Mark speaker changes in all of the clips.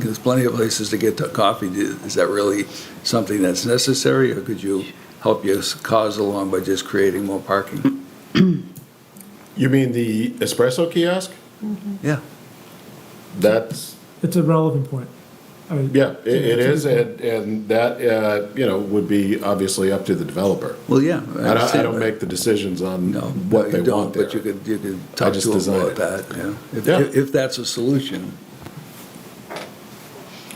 Speaker 1: There's plenty of places to get to coffee. Do- Is that really something that's necessary, or could you help your cause along by just creating more parking?
Speaker 2: You mean the espresso kiosk?
Speaker 1: Yeah.
Speaker 2: That's,
Speaker 3: It's a relevant point. I mean,
Speaker 2: yeah, it, it
Speaker 3: it's-
Speaker 2: is, and, and that, uh, you know, would be obviously up to the developer.
Speaker 1: Well, yeah.
Speaker 2: I don't, I
Speaker 1: understand,
Speaker 2: don't
Speaker 1: but-
Speaker 2: make the decisions on
Speaker 1: No,
Speaker 2: what
Speaker 1: no,
Speaker 2: they
Speaker 1: you don't,
Speaker 2: want there.
Speaker 1: But you could, you could talk
Speaker 2: just
Speaker 1: to them
Speaker 2: design
Speaker 1: about
Speaker 2: it.
Speaker 1: that, yeah. If-
Speaker 2: Yeah.
Speaker 1: If, if that's a solution,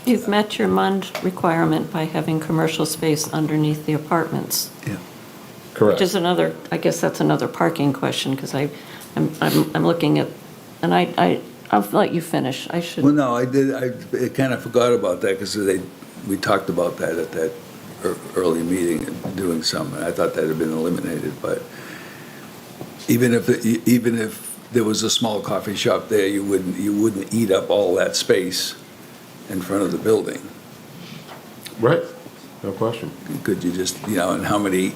Speaker 4: You've met your MUND requirement by having commercial space underneath the apartments,
Speaker 1: yeah.
Speaker 2: Correct.
Speaker 4: which is another, I guess that's another parking question, because I, I'm, I'm I'm looking at, and I, I, I'll let you finish, I should.
Speaker 1: Well, no, I did, I kind of forgot about that because they, we talked about that at that ear- early meeting, doing some, and I thought that had been eliminated, but even if, it- even if there was a small coffee shop there, you wouldn't, you wouldn't eat up all that space in front of the building.
Speaker 2: Right, no question.
Speaker 1: Could you just, you know, and how many,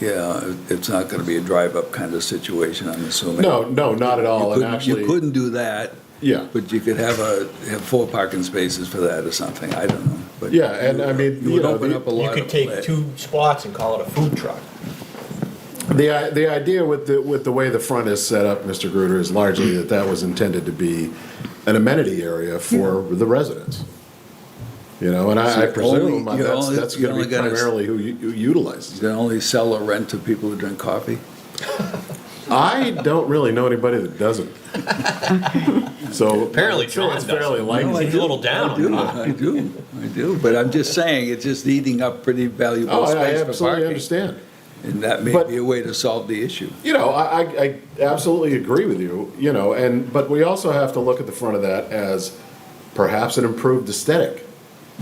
Speaker 1: yeah, it's not going to be a drive-up kind of situation, I'm assuming.
Speaker 2: No, no, not at all,
Speaker 1: You
Speaker 2: and
Speaker 1: couldn't, you
Speaker 2: actually,
Speaker 1: couldn't do that,
Speaker 2: yeah.
Speaker 1: but you could have a, have four parking spaces for that or something, I don't know. But
Speaker 2: Yeah, and I mean,
Speaker 1: You would
Speaker 2: you know,
Speaker 1: open
Speaker 2: the-
Speaker 1: up a
Speaker 5: You
Speaker 1: lot
Speaker 5: could
Speaker 1: of.
Speaker 5: take two spots and call it a food truck.
Speaker 2: The, i- the idea with the, with the way the front is set up, Mr. Gruder, is largely that that was intended to be an amenity area for the residents. You know, and
Speaker 1: So
Speaker 2: I I
Speaker 1: you're
Speaker 2: presume
Speaker 1: only- you're
Speaker 2: that's,
Speaker 1: only-
Speaker 2: that's
Speaker 1: you're
Speaker 2: gonna be
Speaker 1: only gonna s-
Speaker 2: primarily who u- who utilizes
Speaker 1: You
Speaker 2: it.
Speaker 1: can only sell or rent to people who drink coffee?
Speaker 2: I don't really know anybody that doesn't. So.
Speaker 5: Apparently
Speaker 2: it's-
Speaker 5: John
Speaker 2: It's fairly
Speaker 5: doesn't.
Speaker 1: No, I
Speaker 2: likely.
Speaker 5: He's a
Speaker 1: do.
Speaker 5: little down
Speaker 1: I
Speaker 5: on
Speaker 1: do,
Speaker 5: that.
Speaker 1: I do, I do, but I'm just saying, it's just eating up pretty
Speaker 2: Oh,
Speaker 1: valuable
Speaker 2: I- I
Speaker 1: space for
Speaker 2: absolutely
Speaker 1: parking.
Speaker 2: understand.
Speaker 1: And that may
Speaker 2: But-
Speaker 1: be a way to solve the issue.
Speaker 2: You know, I, I, I absolutely agree with you, you know, and, but we also have to look at the front of that as perhaps an improved aesthetic,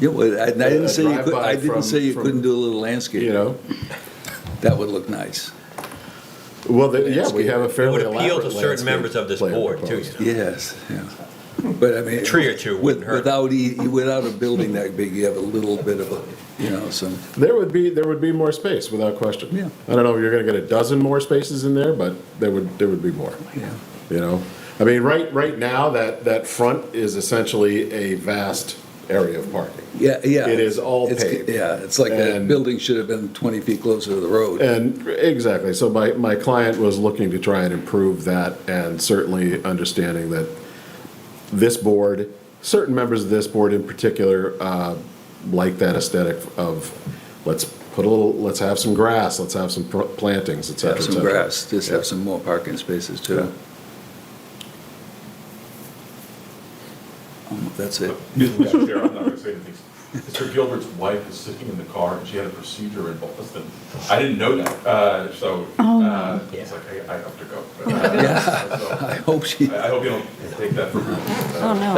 Speaker 1: Yeah, well, I and I
Speaker 2: A
Speaker 1: didn't say you could,
Speaker 2: drive-by
Speaker 1: I didn't
Speaker 2: from-
Speaker 1: say you
Speaker 2: from-
Speaker 1: couldn't do a little landscape.
Speaker 2: you know?
Speaker 1: That would look nice.
Speaker 2: Well, the- yeah, we have a
Speaker 5: It
Speaker 2: fairly
Speaker 5: would
Speaker 2: elaborate
Speaker 5: appeal to certain
Speaker 2: landscape
Speaker 5: members of this
Speaker 2: plan
Speaker 5: board too,
Speaker 2: proposed.
Speaker 5: you know.
Speaker 1: Yes, yeah. But I mean.
Speaker 5: A tree or two
Speaker 1: with-
Speaker 5: wouldn't hurt.
Speaker 1: Without, e- without a building that big, you have a little bit of a, you know, some,
Speaker 2: There would be, there would be more space, without question.
Speaker 1: Yeah.
Speaker 2: I don't know if you're gonna get a dozen more spaces in there, but there would, there would be more,
Speaker 1: yeah.
Speaker 2: you know? I mean, right, right now, that, that front is essentially a vast area of parking.
Speaker 1: Yeah, yeah.
Speaker 2: It is all
Speaker 1: It's-
Speaker 2: paved.
Speaker 1: Yeah, it's like that
Speaker 2: And-
Speaker 1: building should have been 20 feet closer to the road.
Speaker 2: And exactly, so my, my client was looking to try and improve that, and certainly understanding that this board, certain members of this board in particular, uh, like that aesthetic of, let's put a little, let's have some grass, let's have some pr- plantings, et cetera,
Speaker 1: Have
Speaker 2: et
Speaker 1: some
Speaker 2: cetera.
Speaker 1: grass, just have some more parking spaces too. Um, That's it.
Speaker 6: Excuse me, Madam Chair, I'm not going to say anything. Mr. Gilbert's wife is sitting in the car, and she had a procedure in Boston. I didn't know that, uh, so, uh, it's like, I I have to go. But,
Speaker 1: I
Speaker 6: uh,
Speaker 1: hope she,
Speaker 6: so, I I hope you don't take that for granted.
Speaker 4: Oh, no.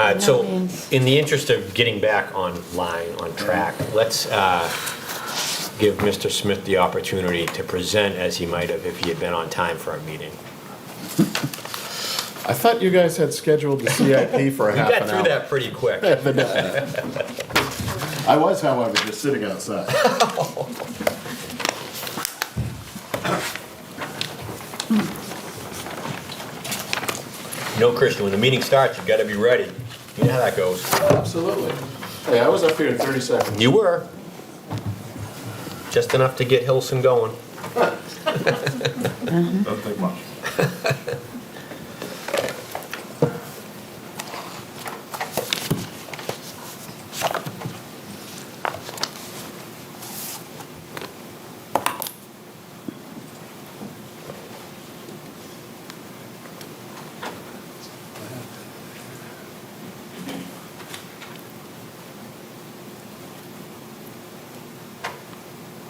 Speaker 5: Uh, So,
Speaker 4: That means-
Speaker 5: in the interest of getting back online, on track, let's uh, give Mr. Smith the opportunity to present as he might have if he had been on time for our meeting.
Speaker 2: I thought you guys had scheduled the CIP for a
Speaker 5: We
Speaker 2: half
Speaker 5: got
Speaker 2: an
Speaker 5: through
Speaker 2: hour.
Speaker 5: that pretty quick.
Speaker 2: I was, however, just sitting outside.
Speaker 5: No, Christian, when the meeting starts, you've got to be ready. You know how that goes.
Speaker 2: Absolutely. Hey, I was up here in 30 seconds.
Speaker 5: You were. Just enough to get Hilson going.
Speaker 6: Don't think much.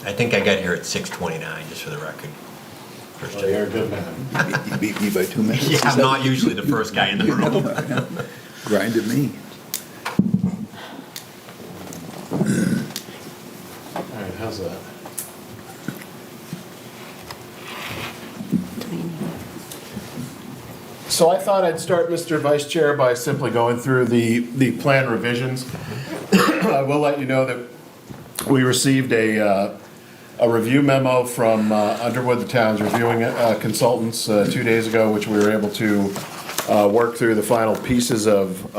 Speaker 5: I think I got here at 6:29, just for the record. Christian.
Speaker 2: You're a good man.
Speaker 1: you beat me by two minutes.
Speaker 5: Yeah, I'm not usually the first guy in the room.
Speaker 1: Grinded me.
Speaker 2: All right, how's that? So I thought I'd start, Mr. Vice Chair, by simply going through the, the plan revisions. I will let you know that we received a, uh, a review memo from uh, Underwood, the town's reviewing uh, consultants, uh, two days ago, which we were able to uh, work through the final pieces of,